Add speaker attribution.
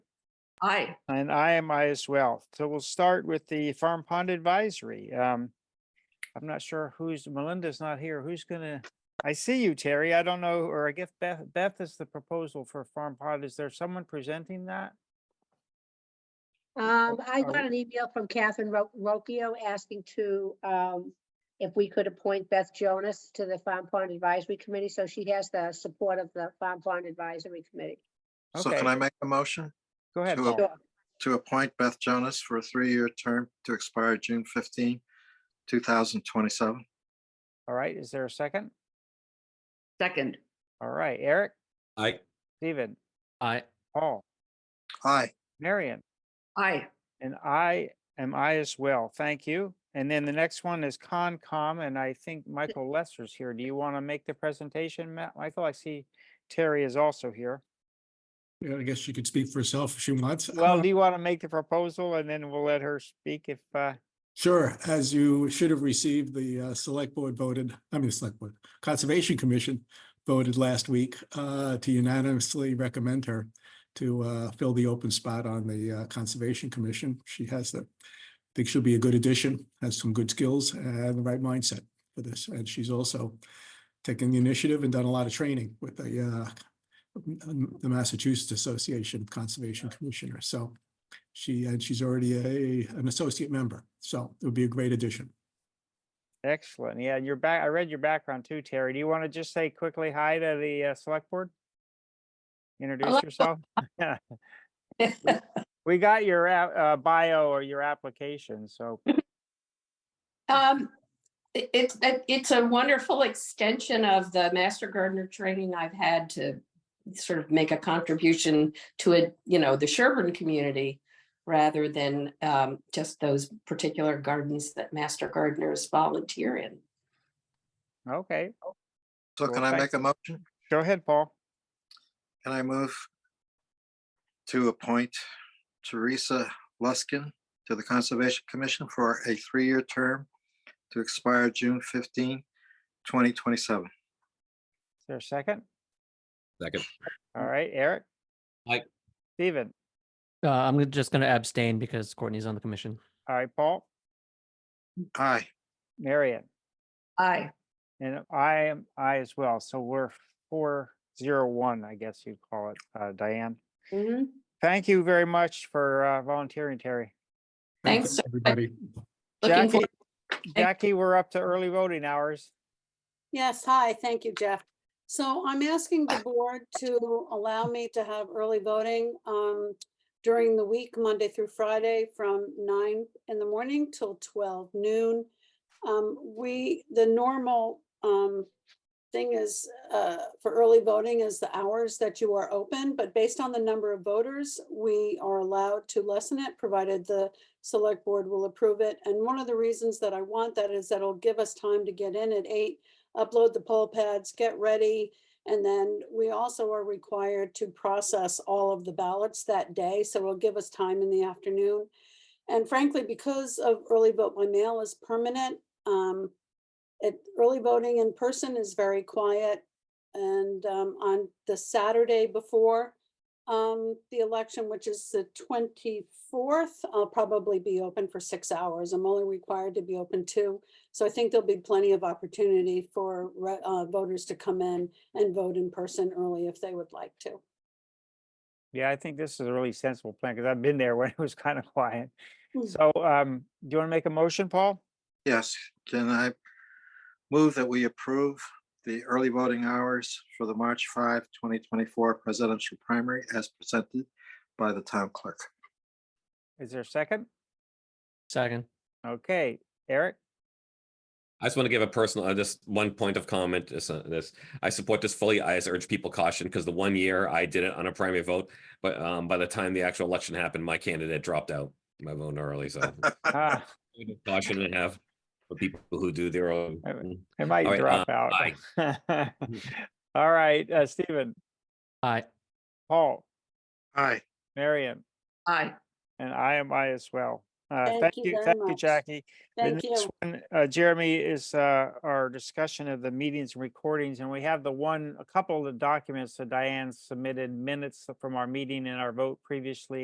Speaker 1: Aye.
Speaker 2: And I am I as well. So we'll start with the Farm Pond Advisory. Um, I'm not sure who's, Melinda's not here. Who's gonna, I see you, Terry. I don't know, or I guess Beth, Beth is the proposal for Farm Pond. Is there someone presenting that?
Speaker 3: Um, I
Speaker 2: are we-
Speaker 3: got an email from Catherine Ro- Rocchio asking to, um, if we could appoint Beth Jonas to the Farm Pond Advisory Committee, so she has the support of the Farm Pond Advisory Committee.
Speaker 4: So can
Speaker 2: Okay.
Speaker 4: I make a motion
Speaker 2: Go ahead.
Speaker 4: Sure.
Speaker 2: Paul.
Speaker 4: Well-
Speaker 3: Sure.
Speaker 4: to appoint Beth Jonas for a three-year term to expire June 15, 2027?
Speaker 2: All right, is there a second?
Speaker 1: Second.
Speaker 2: All right, Eric,
Speaker 5: Aye.
Speaker 2: Stephen,
Speaker 5: Aye.
Speaker 2: Paul,
Speaker 4: Aye.
Speaker 2: Marion.
Speaker 1: Aye.
Speaker 2: And I am I as well. Thank you. And then the next one is Concom, and I think Michael Lesser's here. Do you want to make the presentation, Matt? Michael, I see Terry is also here.
Speaker 6: Yeah, I guess she could speak for herself if she wants.
Speaker 2: Well,
Speaker 6: Uh,
Speaker 2: do you want to make the proposal and then we'll let her speak if, uh,
Speaker 6: Sure, as you should have received, the uh, Select Board voted, I mean, the Select Board, Conservation Commission voted last week uh, to unanimously recommend her to uh, fill the open spot on the uh, Conservation Commission. She has the, I think she'll be a good addition, has some good skills and the right mindset for this. And she's also taken the initiative and done a lot of training with the uh, m- the Massachusetts Association of Conservation Commissioners. So she, and she's already a, an associate member, so it would be a great addition.
Speaker 2: excellent. Yeah, your back, I read your background too, Terry. Do you want to just say quickly hi to the, uh, select board? Introduce yourself. We got your, app- uh, bio or your application, so
Speaker 7: Um, it- it's, it- it's a wonderful extension of the master gardener training I've had to sort of make a contribution to it, you know, the Sherburne community rather than um, just those particular gardens that master gardeners volunteer in.
Speaker 2: okay,
Speaker 4: So
Speaker 2: Well,
Speaker 4: can I
Speaker 2: thank-
Speaker 4: make a motion?
Speaker 2: go ahead, Paul.
Speaker 4: Can I move to appoint Teresa Luskin to the Conservation Commission for a three-year term to expire June 15, 2027?
Speaker 2: Is there a second?
Speaker 5: Second.
Speaker 2: All right, Eric?
Speaker 5: Aye.
Speaker 2: Steven?
Speaker 8: Uh, I'm gonna- just going to abstain because Courtney's on the commission.
Speaker 2: All right, Paul?
Speaker 4: Aye.
Speaker 2: Marion?
Speaker 1: Aye.
Speaker 2: And I am, I as well. So we're four zero one, I guess you'd call it, uh, Diane. Thank you very much for uh, volunteering, Terry.
Speaker 6: Thank
Speaker 7: Thanks,
Speaker 6: you, Everybody.
Speaker 7: Looking
Speaker 2: Jackie,
Speaker 7: forward,
Speaker 2: Jackie, we're up to early voting hours.
Speaker 9: Yes, hi, thank you, Jeff. So I'm asking the board to allow me to have early voting um, during the week, Monday through Friday, from nine in the morning till twelve noon. Um, We, the normal um, thing is, uh, for early voting is the hours that you are open, but based on the number of voters, we are allowed to lessen it, provided the select board will approve it. And one of the reasons that I want that is that it'll give us time to get in at eight upload the poll pads, get ready. And then we also are required to process all of the ballots that day, so it'll give us time in the afternoon. And frankly, because of early vote by mail is permanent, um, it, early voting in person is very quiet. And, um, on the Saturday before, um, the election, which is the twenty-fourth, I'll probably be open for six hours. I'm only required to be open two. So I think there'll be plenty of opportunity for re- uh, voters to come in and vote in person early if they would like to.
Speaker 2: Yeah, I think this is a really sensible plan because I've been there when it was kind of quiet.
Speaker 7: Hmm.
Speaker 9: Mm.
Speaker 2: So um, do you want to make a motion, Paul?
Speaker 4: Yes, can I move that we approve the early voting hours for the March 5, 2024 presidential primary as presented by the town clerk?
Speaker 2: Is there a second?
Speaker 8: Second.
Speaker 2: Okay, Eric?
Speaker 5: I just want to give a personal, uh, just one point of comment. This, uh, this, I support this fully. I just urge people caution because the one year I did it on a primary vote, but um, by the time the actual election happened, my candidate dropped out. My vote early, so
Speaker 2: Ah,
Speaker 5: caution and have for people who do their own.
Speaker 2: All right. It might
Speaker 5: right, uh,
Speaker 2: drop out. All right, uh, Stephen,
Speaker 8: Aye.
Speaker 2: Paul,
Speaker 4: Aye.
Speaker 2: Marion,
Speaker 1: Aye.
Speaker 2: and I am I as well. Uh,
Speaker 9: Thank
Speaker 2: thank
Speaker 9: you
Speaker 2: you,
Speaker 9: very
Speaker 2: thank you,
Speaker 9: much.
Speaker 2: Jackie. The
Speaker 9: Thank
Speaker 2: next
Speaker 9: you.
Speaker 2: one, Uh, Jeremy is, uh, our discussion of the meetings and recordings, and we have the one, a couple of the documents that Diane submitted minutes from our meeting and our vote previously.